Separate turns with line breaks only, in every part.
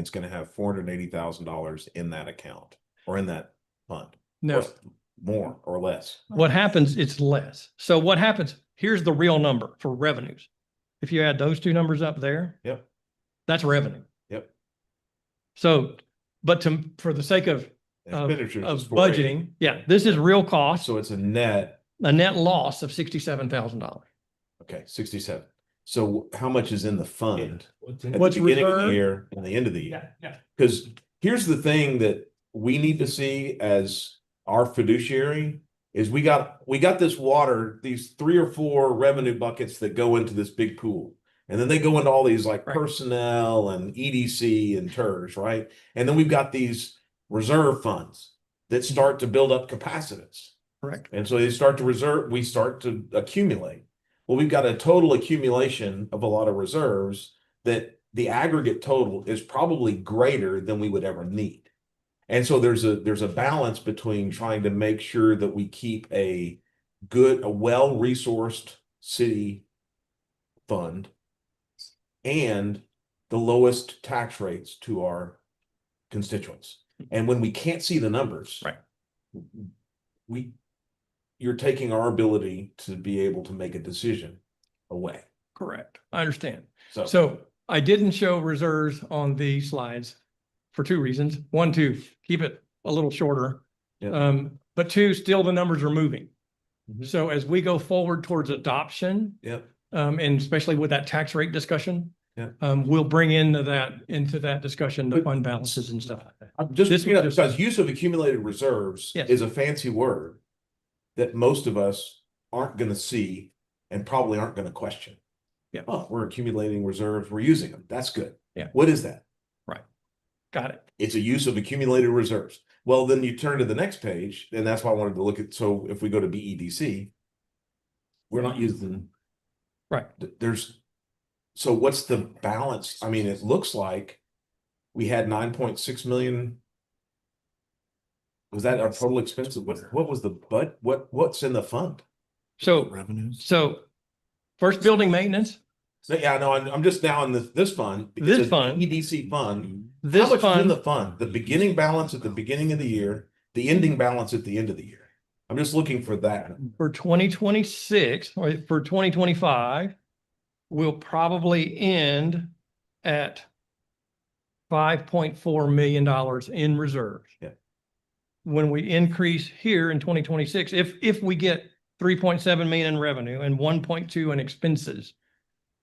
it's gonna have four hundred and eighty thousand dollars in that account or in that fund.
No,
Or More or less.
what happens, it's less. So what happens, here's the real number for revenues. If you add those two numbers up there.
Yep.
That's revenue.
Yep.
So, but to, for the sake of, of,
Expenditures
of
is 480.
budgeting, yeah, this is real cost,
So it's a net,
a net loss of sixty-seven thousand dollars.
okay, sixty-seven. So how much is in the fund? at the
What's
beginning of the
reserved?
Year and the end of the year.
yeah.
Because here's the thing that we need to see as our fiduciary is we got, we got this water, these three or four revenue buckets that go into this big pool. And then they go into all these like
Right.
personnel and EDC and TERS, right? And then we've got these reserve funds that start to build up capacitance.
Correct.
And so they start to reserve, we start to accumulate. Well, we've got a total accumulation of a lot of reserves that the aggregate total is probably greater than we would ever need. And so there's a, there's a balance between trying to make sure that we keep a good, a well-resourced city fund and the lowest tax rates to our constituents. And when we can't see the numbers.
Right.
We, you're taking our ability to be able to make a decision away.
Correct. I understand.
So.
So I didn't show reserves on the slides for two reasons. One, to keep it a little shorter.
Yeah.
Um, but two, still the numbers are moving.
Mhm.
So as we go forward towards adoption,
Yep,
um, and especially with that tax rate discussion,
Yeah.
um, we'll bring into that, into that discussion, the
But-
fund balances and stuff like that.
I'm just,
This
you know,
was just-
because use of accumulated reserves
Yes.
is a fancy word that most of us aren't gonna see and probably aren't gonna question.
Yeah.
Oh, we're accumulating reserves, we're using them, that's good.
Yeah.
What is that?
Got it.
It's a use of accumulated reserves. Well, then you turn to the next page, and that's why I wanted to look at, so if we go to BEDC, we're not using.
Right.
th- There's, so what's the balance? I mean, it looks like we had nine point six million. Was that our total expense? What, what was the, but what, what's in the fund?
So,
Revenues.
so first building maintenance,
So, yeah, no, I'm, I'm just now in this, this fund.
This
It's a
fund.
EDC fund. How
this
much is in the
fund,
fund? The beginning balance at the beginning of the year, the ending balance at the end of the year. I'm just looking for that.
for twenty twenty-six, or for twenty twenty-five, will probably end at five point four million dollars in reserves.
Yeah.
When we increase here in twenty twenty-six, if, if we get three point seven million in revenue and one point two in expenses,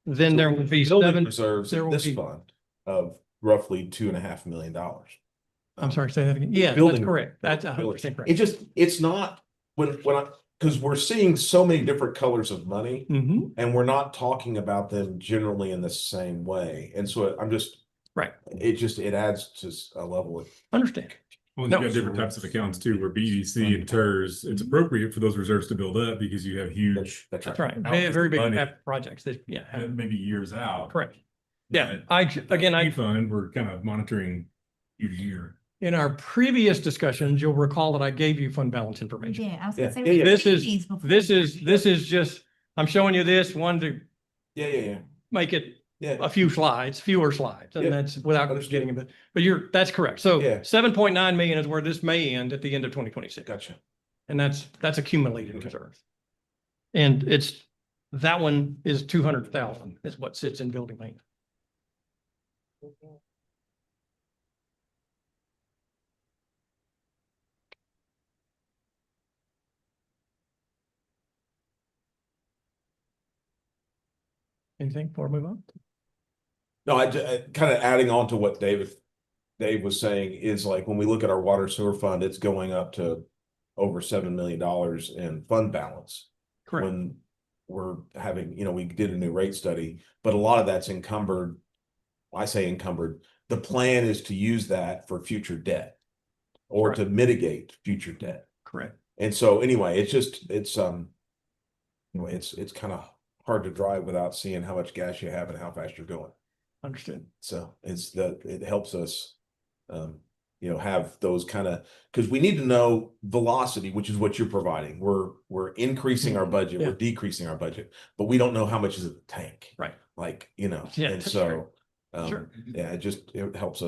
then there would be
Building
seven,
Reserves
there
in
will
this
be-
fund of roughly two and a half million dollars.
I'm sorry, say that again. Yeah, that's
Building-
correct. That's a hundred
Really.
percent correct.
It just, it's not, when, when I, because we're seeing so many different colors of money.
Mhm.
And we're not talking about them generally in the same way. And so I'm just.
Right.
It just, it adds to s- a level of.
Understand.
Well,
No. Mm-hmm.
you've got different types of accounts too, where BDC and TERS, it's appropriate for those reserves to build up because you have huge,
That's right.
Out
Very,
is
very
the
big
money.
cap projects that, yeah,
uh,
have-
maybe years out.
correct. Yeah,
But
I, again, I,
E Fund, we're kind of monitoring year to year.
in our previous discussions, you'll recall that I gave you fund balance information.
Yeah, I was
Yeah,
gonna say.
yeah,
we
yeah.
did
This is-
these before.
This is, this is just, I'm showing you this one to
Yeah, yeah, yeah,
make it
yeah.
a few slides, fewer slides,
Yeah,
and that's without
understood.
getting it, but you're, that's correct. So
Yeah.
seven point nine million is where this may end at the end of twenty twenty-six.
Gotcha.
And that's, that's accumulated
Okay.
reserves. And it's, that one is two hundred thousand is what sits in building maintenance. Anything before we move on?
No, I, kind of adding on to what David, Dave was saying is like, when we look at our water sewer fund, it's going up to over seven million dollars in fund balance.
Correct,
When we're having, you know, we did a new rate study, but a lot of that's encumbered. I say encumbered, the plan is to use that for future debt or to mitigate future debt.
correct.
And so anyway, it's just, it's, um, anyway, it's, it's kind of hard to drive without seeing how much gas you have and how fast you're going.
Understood.
So it's the, it helps us, um, you know, have those kind of, because we need to know velocity, which is what you're providing. We're, we're increasing our budget,
Mm-hmm. Yeah.
we're decreasing our budget, but we don't know how much is in the tank.
Right.
Like, you know,
Yeah,
and
that's right.
so, um,
Sure.
yeah, it just, it helps us.